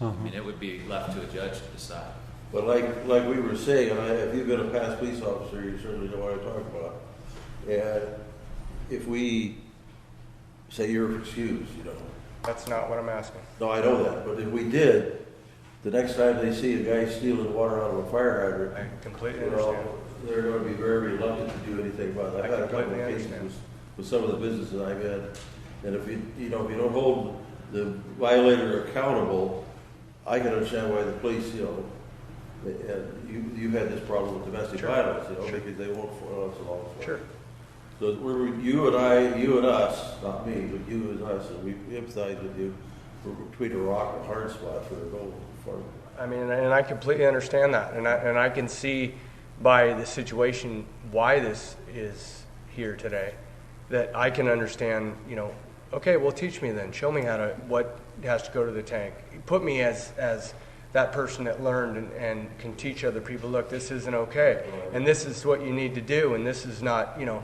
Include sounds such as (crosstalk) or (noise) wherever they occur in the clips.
Uh-huh. I mean, it would be left to a judge to decide. But like, like we were saying, I- if you've been a past police officer, you certainly know what I'm talking about. And if we say you're excused, you know, That's not what I'm asking. no, I know that, but if we did, the next time they see a guy stealing water out of a fire hydrant, I completely you know, understand. they're gonna be very reluctant to do anything about it. I've had a couple of completely cases understand. with, with some of the businesses I've had, and if you, you know, if you don't hold the violator accountable, I can understand why the police, you know, and you, you've had this problem with domestic Sure. violence, you know, Sure. because they won't follow us along. Sure. So we're, you and I, you and us, not me, but you and us, and we empathize with you, we're between a rock and a hard spot for a goal, for, I mean, and I completely understand that, and I, and I can see by the situation why this is here today, that I can understand, you know, okay, well, teach me then, show me how to, what has to go to the tank. Put me as, as that person that learned and, and can teach other people, look, this isn't okay, and this is what you need to do, and this is not, you know,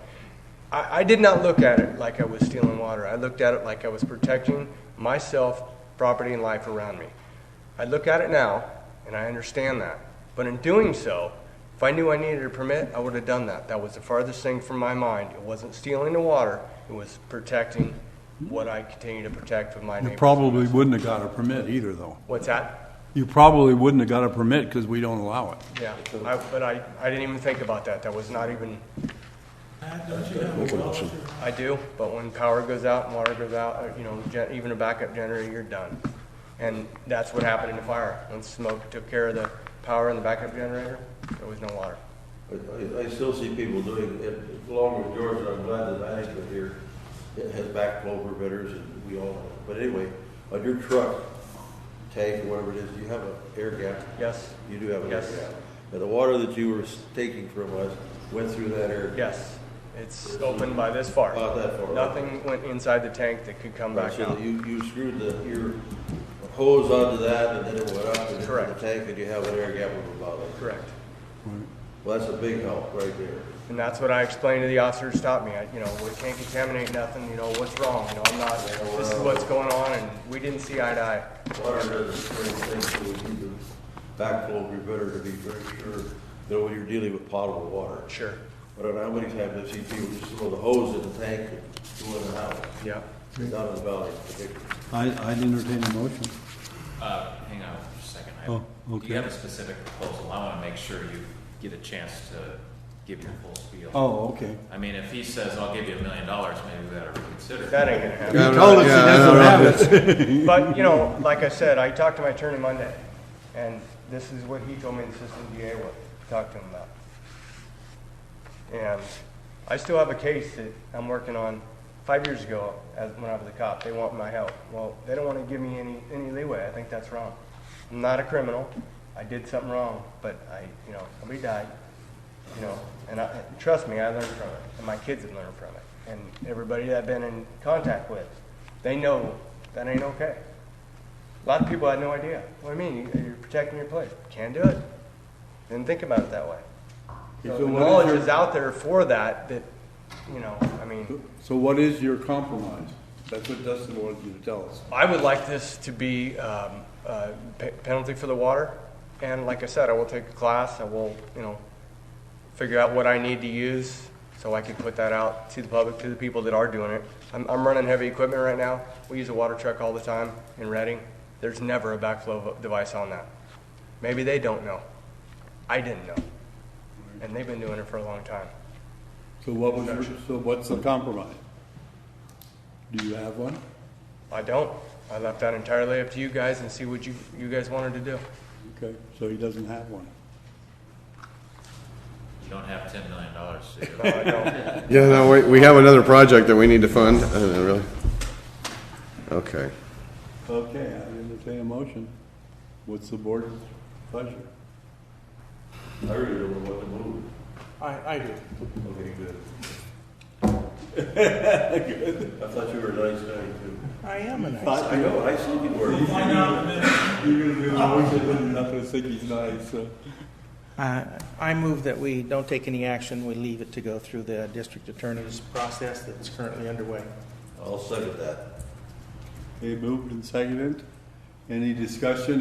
I, I did not look at it like I was stealing water. I looked at it like I was protecting myself, property, and life around me. I look at it now, and I understand that. But in doing so, if I knew I needed a permit, I would have done that. That was the farthest thing from my mind. It wasn't stealing the water, it was protecting what I continue to protect with my You neighbors. probably wouldn't have got a permit either, though. What's that? You probably wouldn't have got a permit because we don't allow it. Yeah, I, but I, I didn't even think about that. That was not even, Make a motion. I do, but when power goes out and water goes out, uh, you know, gen- even a backup generator, you're done. And that's what happened in the fire. When smoke took care of the power and the backup generator, there was no water. I, I- I still see people doing, it along with George, and I'm glad that management here has backflow preventers and we all, but anyway, on your truck, tank or whatever it is, you have an air gap. Yes? You do have an air Yes. gap. And the water that you were taking from us went through that air. gap. Yes, it's open by this far. About that far. Nothing went inside the tank that could come back So out. that you, you screwed the, your hose onto that and then it went up into the Correct. tank and you have an air gap of about it. Correct. Well, that's a big help right there. And that's what I explained to the officer to stop me. I, you know, we can't contaminate nothing, you know, what's wrong? You know, I'm not, this is what's going on, and we didn't see eye to eye. Water doesn't bring things, so we need the backflow preventer to be very sure, you know, when you're dealing with potable water. Sure. I don't know how many times I've seen people just throw the hose in the tank and go in and out, Yeah. down in the valley particularly. I, I'd entertain a motion. Uh, hang on just a second. I- Oh, Do you okay. have a specific proposal? I want to make sure you get a chance to give your full spiel. Oh, okay. I mean, if he says, I'll give you a million dollars, maybe we gotta reconsider. That ain't gonna happen. You told us he doesn't have it. But, you know, like I said, I talked to my attorney Monday, and this is what he told me the assistant DA would talk to him about. And I still have a case that I'm working on five years ago, as, when I was a cop, they want my help. Well, they don't wanna give me any, any leeway, I think that's wrong. I'm not a criminal, I did something wrong, but I, you know, somebody died, you know, and I, and trust me, I learned from it, and my kids have learned from it, and everybody that I've been in contact with, they know that ain't okay. A lot of people had no idea. What do you mean? You- You're protecting your place. Can't do it. Didn't think about it that way. So the So what is knowledge your- is out there for that. That you know, I mean, So what is your compromise? That's what Dustin wanted you to tell us. I would like this to be um, uh, pe- penalty for the water, and like I said, I will take a class. I will, you know, figure out what I need to use so I can put that out to the public, to the people that are doing it. I'm, I'm running heavy equipment right now. We use a water truck all the time in Reading. There's never a backflow device on that. Maybe they don't know. I didn't know, and they've been doing it for a long time. So what was your, so what's the compromise? Do you have one? I don't. I left that entirely up to you guys and see what you you guys wanted to do. Okay, so he doesn't have one. You don't have ten million dollars, so (laughs) you're- No, I don't. Yeah, no, we, we have another project that we need to fund, I don't know, really. Okay. Okay, I entertain a motion. What's the board's pleasure? I really don't know what to move. I, I do. Okay, good. (laughs) I thought you were a nice guy too. I am a nice I know, I see you were. You're gonna do a motion and not gonna think he's nice, so. Uh, I move that we don't take any action, we leave it to go through the district attorney's process that's currently underway. I'll second that. They moved and seconded. Any discussion?